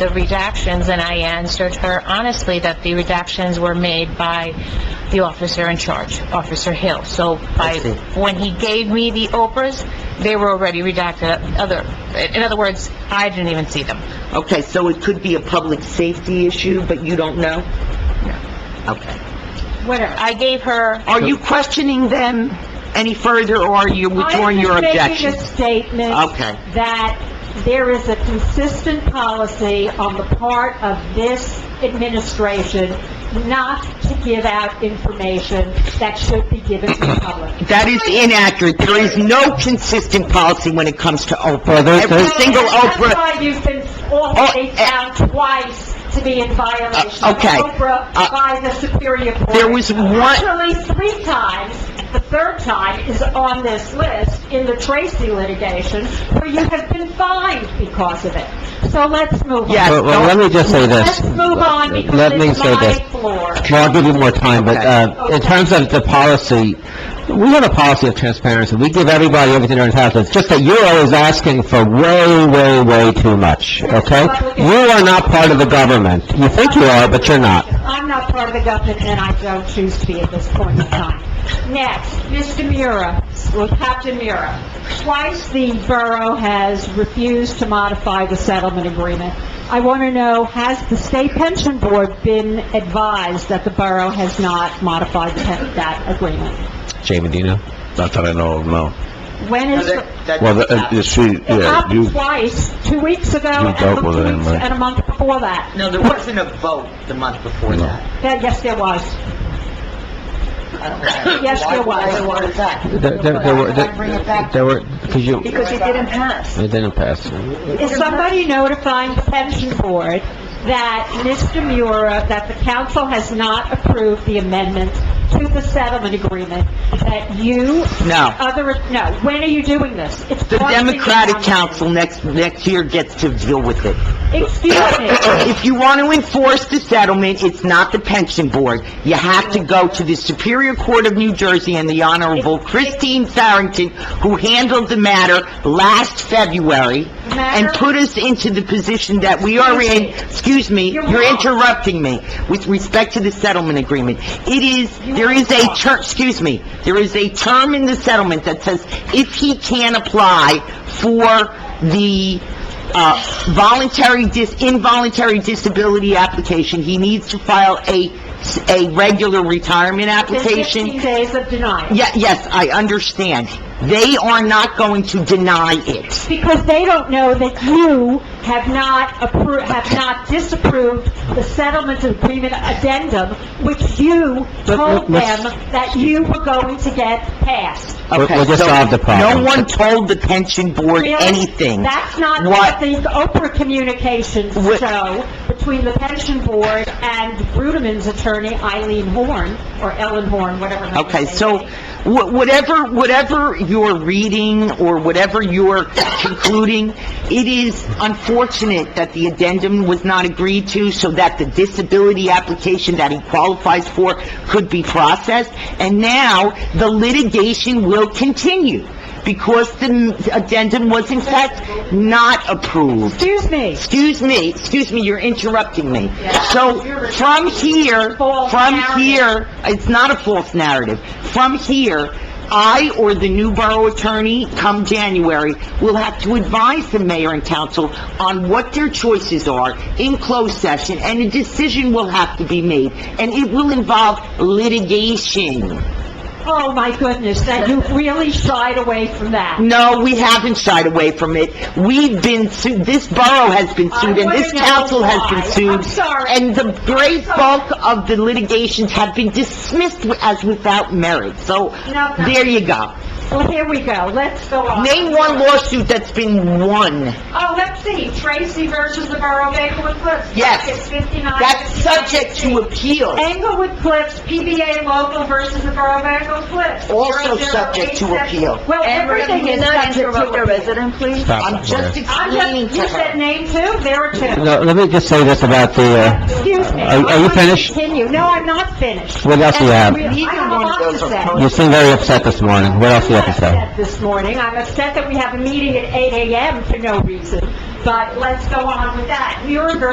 the redactions, and I answered her honestly that the redactions were made by the officer in charge, Officer Hill. So by, see. when he gave me the Oprahs, they were already redacted, other, in other words, I didn't even see them. Okay, so it could be a public safety issue, but you don't know? Okay. Whatever. I gave her, Are you questioning them any further, or are you withdrawing your I'm objection? just making a statement Okay. that there is a consistent policy on the part of this administration not to give out information that should be given to the public. That is inaccurate. There is no consistent policy when it comes to Oprah. Every single That's Oprah, why you've been already found twice to be in violation Uh, Oh, eh. of okay. Oprah Uh, by the Superior Court. there was one, Actually, three times, the third time is on this list in the Tracy litigation, where you have been fined because of it. So let's move on. Yes. Well, well, let me just say Let's this. move on because Let me it's say my this. floor. Well, I'll give you more time, but, uh, in Okay. terms of the policy, we have a policy of transparency. We give everybody everything they're entitled to. It's just that you're always asking for way, way, way too much, okay? You are not part of the government. You think you are, but you're not. I'm not part of the government, and I don't choose to be at this point in time. Next, Mr. Mura, well, Captain Mura. Twice the borough has refused to modify the settlement agreement. I want to know, has the state pension board been advised that the borough has not modified the pe- that agreement? Jay Medina? Not that I know of, no. When is, the- Well, the- uh, you see, it yeah, happened you, twice, two weeks ago You and dealt a with it, month- anyway. and a month before that. No, there wasn't a vote the month before No. that. That- Yes, there was. Yes, there was. Why was that? There, there there were, there were, because you, it Because it didn't pass. didn't pass. Is somebody notifying the pension board that Mr. Mura, that the council has not approved the amendment to the settlement agreement, that you, No. other, no, when are you doing this? It's The costing you Democratic money. Council next, next year gets to deal with it. Excuse me, If you want to enforce the settlement, it's not the pension board. You have to go to the Superior Court of New Jersey and the Honorable Christine Farrington, who handled the matter last February, and put us into the position that we are in, excuse me, you're interrupting me, with respect to the settlement agreement. It is, there is a term, excuse me, there is a term in the settlement that says if he can apply for the uh, voluntary dis, involuntary disability application, he needs to file a, a regular retirement there's 15 application. days of denial. Yeah, yes, I understand. They are not going to deny it. Because they don't know that you have not appro, have not disapproved the settlement agreement addendum, which you told them that you were going to get passed. We'll- Okay, we'll just so solve the problem. No one told the pension board Really? anything. That's not What, what the Oprah communications Wh- show between the pension board and Bruderman's attorney Eileen Horn, or Ellen Horn, whatever. her okay, name so is. wh- whatever, whatever you're reading or whatever you're concluding, it is unfortunate that the addendum was not agreed to so that the disability application that he qualifies for could be processed. And now the litigation will continue because the addendum was in fact not approved. Excuse me. Excuse me, excuse me, you're interrupting me. So, from here, False from narrative. here, it's not a false narrative. From here, I or the new borough attorney, come January, will have to advise the mayor and council on what their choices are in closed session, and a decision will have to be made, and it will involve litigation. Oh, my goodness, that you really shied away from that. No, we haven't shied away from it. We've been sued, this borough has been sued, and this council has been sued. I'm sorry. And the great bulk of the litigations have been dismissed as without merit, so No, no. there you go. Well, here we go, let's go on. Name one lawsuit that's been won. Oh, let's see, Tracy versus the Borough of Englewood Cliffs. Yes. It's 59. That's subject to appeal, Englewood Cliffs, PBA local versus the Borough of Englewood Cliffs. also subject to 0087. appeal. Well, everything is subject to appeal. please. Stop I'm it, just Maria. I'm explaining just, to you said her. name two, there are two. No, let me just say this about the, uh, Excuse me. Are- are you I finished? Continue, no, I'm not finished. what else do you have? I have a lot to say. You seem very upset this morning. What else do you have to I'm say? upset this morning. I'm upset that we have a meeting at 8 AM for no reason, but let's go on with that. Muir versus